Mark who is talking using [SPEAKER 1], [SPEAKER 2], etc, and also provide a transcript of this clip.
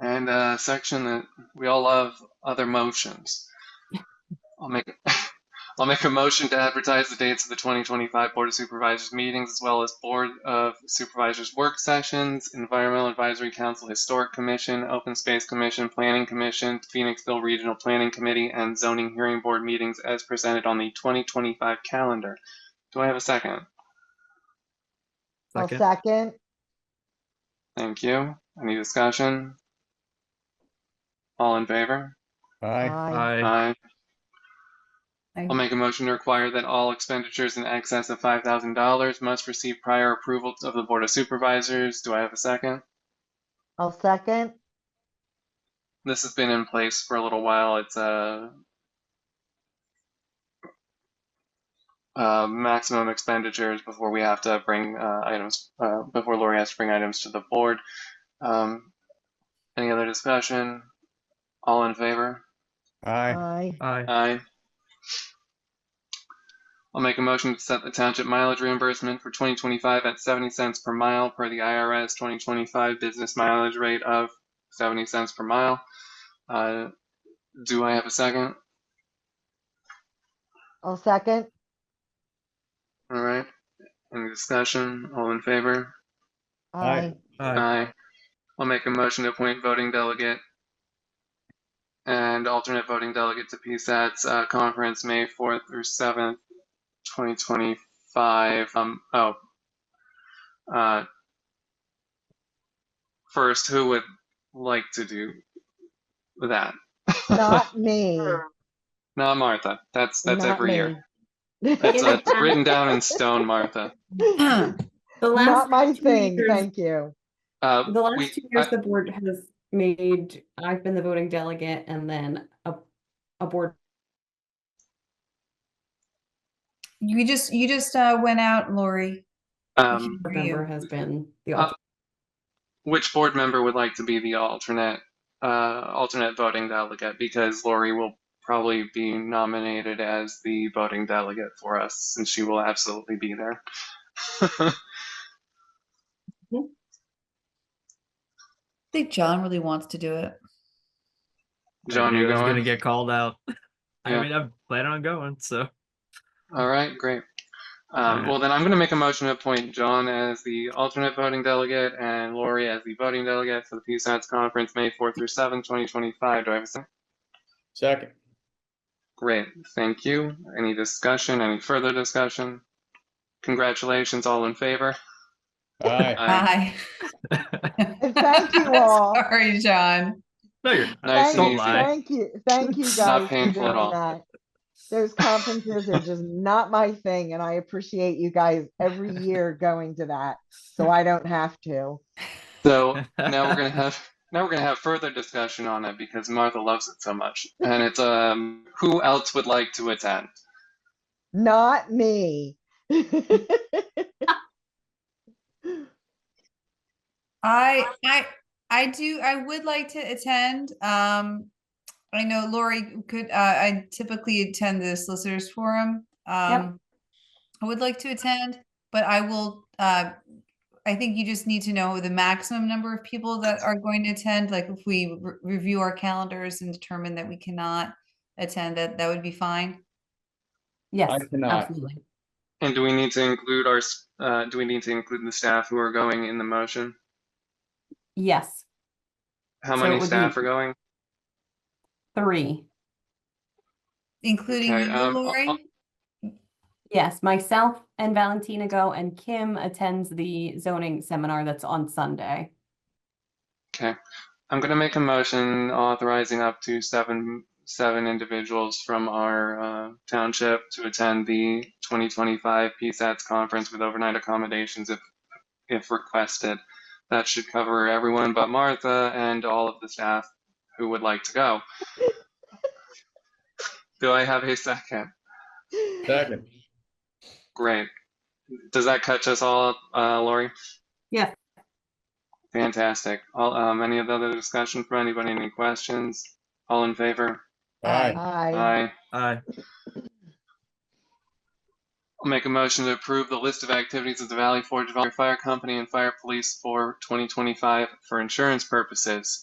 [SPEAKER 1] and a section that we all love other motions. I'll make I'll make a motion to advertise the dates of the 2025 Board of Supervisors meetings as well as Board of Supervisors work sessions, Environmental Advisory Council, Historic Commission, Open Space Commission, Planning Commission, Phoenixville Regional Planning Committee, and Zoning Hearing Board meetings as presented on the 2025 calendar. Do I have a second?
[SPEAKER 2] I'll
[SPEAKER 3] Second,
[SPEAKER 2] second.
[SPEAKER 1] Thank you. Any discussion? All in favor?
[SPEAKER 4] Aye.
[SPEAKER 3] aye,
[SPEAKER 1] Aye.
[SPEAKER 5] Aye.
[SPEAKER 1] I'll make a motion to require that all expenditures in excess of five thousand dollars must receive prior approval of the Board of Supervisors. Do I have a second?
[SPEAKER 2] I'll second.
[SPEAKER 1] This has been in place for a little while. It's a uh, maximum expenditures before we have to bring uh, items, uh, before Lori has to bring items to the board. Um, Any other discussion? All in favor?
[SPEAKER 4] Aye.
[SPEAKER 2] Aye.
[SPEAKER 3] aye,
[SPEAKER 1] Aye. I'll make a motion to set the township mileage reimbursement for 2025 at 70 cents per mile per the IRS 2025 business mileage rate of 70 cents per mile. Uh, Do I have a second?
[SPEAKER 2] I'll second.
[SPEAKER 1] All right. Any discussion? All in favor?
[SPEAKER 2] Aye.
[SPEAKER 3] aye,
[SPEAKER 1] Aye. I'll make a motion to appoint voting delegate and alternate voting delegate to PSAT's uh, conference, May 4th through 7th, 2025. Um, oh. Uh, First, who would like to do that?
[SPEAKER 2] Not me.
[SPEAKER 1] Not Martha. That's, that's
[SPEAKER 2] Not
[SPEAKER 1] every year.
[SPEAKER 2] me.
[SPEAKER 1] That's uh, written down in stone, Martha.
[SPEAKER 5] The
[SPEAKER 2] Not
[SPEAKER 5] last,
[SPEAKER 2] my
[SPEAKER 5] two
[SPEAKER 2] thing,
[SPEAKER 5] years-
[SPEAKER 2] thank you.
[SPEAKER 1] Uh,
[SPEAKER 5] the
[SPEAKER 1] we-
[SPEAKER 5] last two years,
[SPEAKER 1] I-
[SPEAKER 5] the board has made, I've been the voting delegate and then a, a board.
[SPEAKER 6] You just, you just uh, went out, Lori.
[SPEAKER 1] um,
[SPEAKER 6] For you.
[SPEAKER 5] Member has been the.
[SPEAKER 1] Uh, which board member would like to be the alternate uh, alternate voting delegate because Lori will probably be nominated as the voting delegate for us since she will absolutely be there.
[SPEAKER 6] I think John really wants to do it.
[SPEAKER 1] John,
[SPEAKER 3] I
[SPEAKER 1] you
[SPEAKER 3] was gonna
[SPEAKER 1] going?
[SPEAKER 3] get called out. I
[SPEAKER 1] Yeah.
[SPEAKER 3] mean, I'm planning on going, so
[SPEAKER 1] All right, great.
[SPEAKER 3] All
[SPEAKER 1] Um,
[SPEAKER 3] right.
[SPEAKER 1] well, then I'm going to make a motion to appoint John as the alternate voting delegate and Lori as the voting delegate for the PSATS conference, May 4th through 7th, 2025. Do I have a second?
[SPEAKER 4] Second.
[SPEAKER 1] Great, thank you. Any discussion, any further discussion? Congratulations, all in favor?
[SPEAKER 4] Aye.
[SPEAKER 1] Aye.
[SPEAKER 6] Bye.
[SPEAKER 2] And thank you all.
[SPEAKER 6] Sorry, John.
[SPEAKER 3] no, you're
[SPEAKER 1] Nice and
[SPEAKER 2] Thank
[SPEAKER 3] Don't
[SPEAKER 2] you,
[SPEAKER 1] easy.
[SPEAKER 3] lie.
[SPEAKER 2] Thank you, thank you
[SPEAKER 1] It's
[SPEAKER 2] guys.
[SPEAKER 1] not
[SPEAKER 2] for
[SPEAKER 1] painful at
[SPEAKER 2] doing
[SPEAKER 1] all.
[SPEAKER 2] that. Those conferences are just not my thing and I appreciate you guys every year going to that, so I don't have to.
[SPEAKER 1] So now we're gonna have now we're gonna have further discussion on it because Martha loves it so much, and it's um who else would like to attend?
[SPEAKER 2] Not me.
[SPEAKER 6] I, I, I do, I would like to attend. Um, I know Lori could, uh, I typically attend the solicitors forum. Um, I would like to attend, but I will, uh, I think you just need to know the maximum number of people that are going to attend. Like if we re- review our calendars and determine that we cannot attend, that, that would be fine.
[SPEAKER 5] Yes,
[SPEAKER 4] cannot.
[SPEAKER 5] absolutely.
[SPEAKER 1] And do we need to include our s- uh, do we need to include the staff who are going in the motion?
[SPEAKER 5] Yes,
[SPEAKER 1] How
[SPEAKER 5] So it
[SPEAKER 1] many
[SPEAKER 5] would
[SPEAKER 1] staff
[SPEAKER 5] be-
[SPEAKER 1] are going?
[SPEAKER 5] three.
[SPEAKER 6] Including
[SPEAKER 1] Okay,
[SPEAKER 6] you,
[SPEAKER 1] um, I'll-
[SPEAKER 6] Lori?
[SPEAKER 5] Yes, myself and Valentina go and Kim attends the zoning seminar that's on Sunday.
[SPEAKER 1] Okay, I'm gonna make a motion authorizing up to seven seven individuals from our uh, township to attend the 2025 PSATS conference with overnight accommodations if if requested. That should cover everyone but Martha and all of the staff who would like to go. Do I have a second?
[SPEAKER 4] Second.
[SPEAKER 1] Great. Does that catch us all, up, uh, Lori?
[SPEAKER 5] Yes.
[SPEAKER 1] Fantastic. All, um, any other discussion from anybody? Any questions? All in favor?
[SPEAKER 4] Aye.
[SPEAKER 2] Aye.
[SPEAKER 1] Aye.
[SPEAKER 3] aye,
[SPEAKER 1] I'll make a motion to approve the list of activities of the Valley Forge Volunteer Fire Company and Fire Police for 2025 for insurance purposes.